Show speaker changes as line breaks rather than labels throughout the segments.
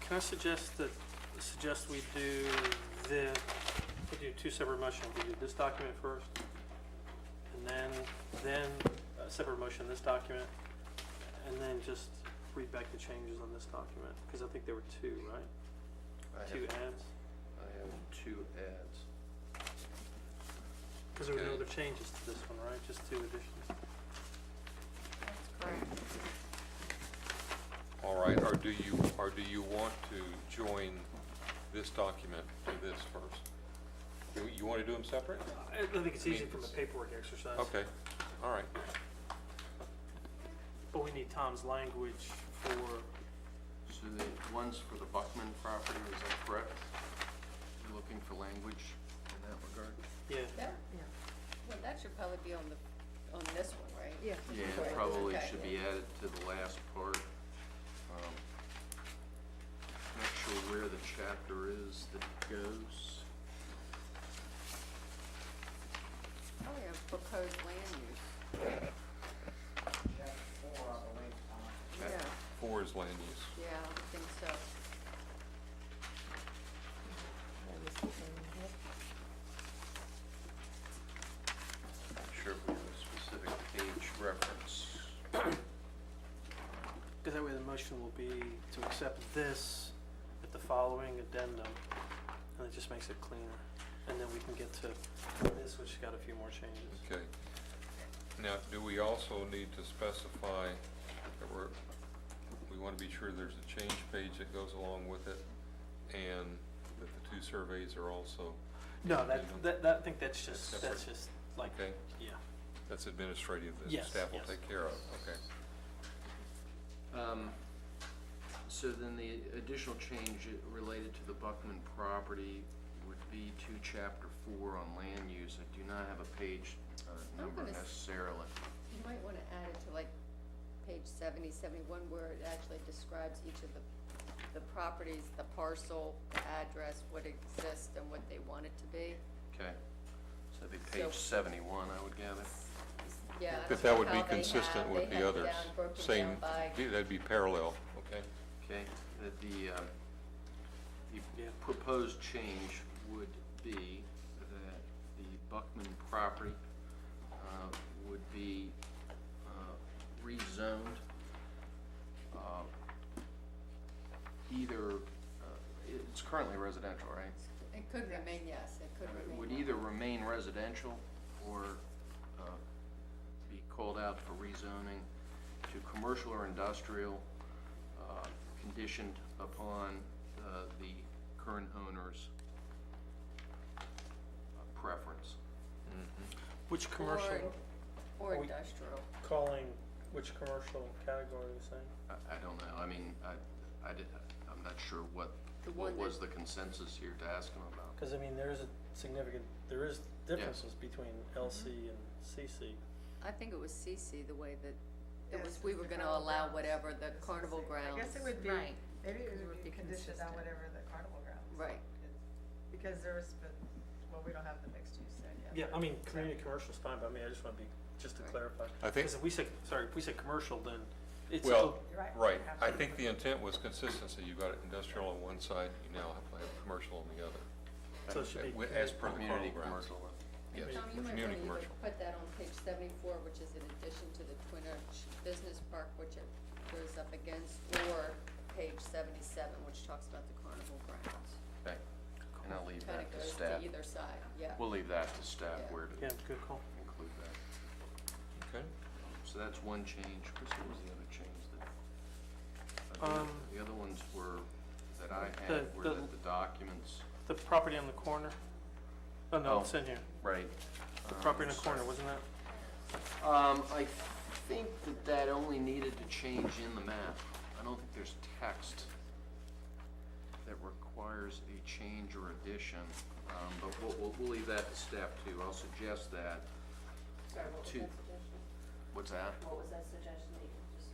Can I suggest that, suggest we do the, we do two separate motions? We do this document first, and then, then a separate motion, this document, and then just read back the changes on this document, because I think there were two, right?
I have,
Two adds,
I have two ads.
because there were no
Okay.
other changes to this one, right? Just two additions.
That's correct.
All right, or do you, or do you want to join this document to this first? You, you want to do them separate?
I I think it's easy from a paperwork exercise.
Okay, all right.
But we need Tom's language for
So the ones for the Buckman property, is that correct? You're looking for language in that regard?
Yeah,
That,
Yeah,
well, that should probably be on the, on this one, right?
yeah.
Yeah, it
Correct.
probably
Okay.
should be added to the last part. Um, Not sure where the chapter is that goes.
Oh, yeah, proposed land use. Yeah,
Chapter Four is land use.
yeah, I would think so.
That was the thing, yep.
Not sure if we have a specific page reference.
Because that way the motion will be to accept this at the following addendum, and it just makes it cleaner. And then we can get to this, which has got a few more changes.
Okay. Now, do we also need to specify that we're, we want to be sure there's a change page that goes along with it and that the two surveys are also,
No, that, that, that, I think that's just,
That's
that's
separate.
just like,
okay?
yeah.
That's administrative that
Yes,
staff will
yes.
take care of, okay?
Um, So then the additional change related to the Buckman property would be to chapter four on land use. I do not have a page uh,
I'm
number
gonna s-
necessarily.
You might wanna add it to like page seventy, seventy-one, where it actually describes each of the, the properties, the parcel, the address, what exists and what they want it to be.
Okay, so that'd be
So-
page seventy-one, I would gather.
Yeah, I
But
don't
that
know
would be
how they
consistent
have-
with
they
the
have it
others.
down, broken
Same,
down by-
yeah, that'd be parallel, okay?
Okay, that the, um, the
Yeah.
proposed change would be that the Buckman property uh, would be uh, rezoned uh, either, uh, it- it's currently residential, right?
It could remain, yes, it could remain.
Would
that.
either remain residential or uh, be called out for rezoning to commercial or industrial, uh, conditioned upon uh, the current owner's uh, preference.
Mm-hmm.
Which commercial,
Or, or
We-
industrial.
calling, which commercial category are you saying?
I I don't know, I mean, I, I did, I'm not sure what,
The
what
one that-
was the consensus here to ask him about.
Because I mean, there is a significant, there is differences between LC and CC.
I think it was CC, the way that, it was,
Yes,
we
it's
were
the
gonna
carnival
allow
grounds.
whatever the
It's the
carnival
same.
grounds.
I guess it would be,
Right.
maybe it
It
would
would
be
be
conditioned on
consistent.
whatever the carnival grounds.
Right.
is. Because there was, but, well, we don't have the mixed use there
Yeah,
yet.
I mean, community commercial's fine, but I mean, I just want to be, just to
Right.
clarify.
I think-
Because if we say, sorry, if we say commercial, then it's. still-
Well,
You're right.
right, I
Absolutely.
think the intent was consistency, you've got industrial on one side, you now have, to have commercial on the other.
So it should be
Wi- As per the
Community
Carl Brown.
commercial.
Yes,
Tom, you might
community
wanna either
commercial.
put that on page seventy-four, which is in addition to the Twin Arch Business Park, which it goes up against, or page seventy-seven, which talks about the carnival grounds.
Okay, and I'll leave
Kinda
that to
goes
staff.
to either side, yeah.
We'll leave that to staff
Yeah.
where to
Yeah, good call.
include that.
Okay,
So that's one change. Chris, what was the other change that? uh, the-
Um,
The other ones were, that I
The-
had, were
the-
that the documents.
The property on the corner? Oh, no, it's in here.
Right.
The property in the corner, wasn't that?
Um, I think that that only needed to change in the map. I don't think there's text that requires a change or addition, um, but we'll, we'll, we'll leave that to staff too. I'll suggest that.
Sorry, what was
Two.
that suggestion?
What's that?
What was that suggestion that you just,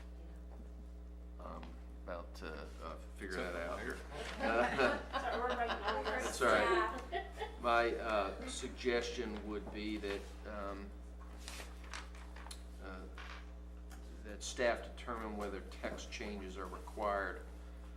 you know?
Um, about, uh, uh, figure
Is that
that out
there?
here.
Sorry, we're right now, we're
That's all right.
staff.
My uh, suggestion would be that, um, uh, that staff determine whether text changes are required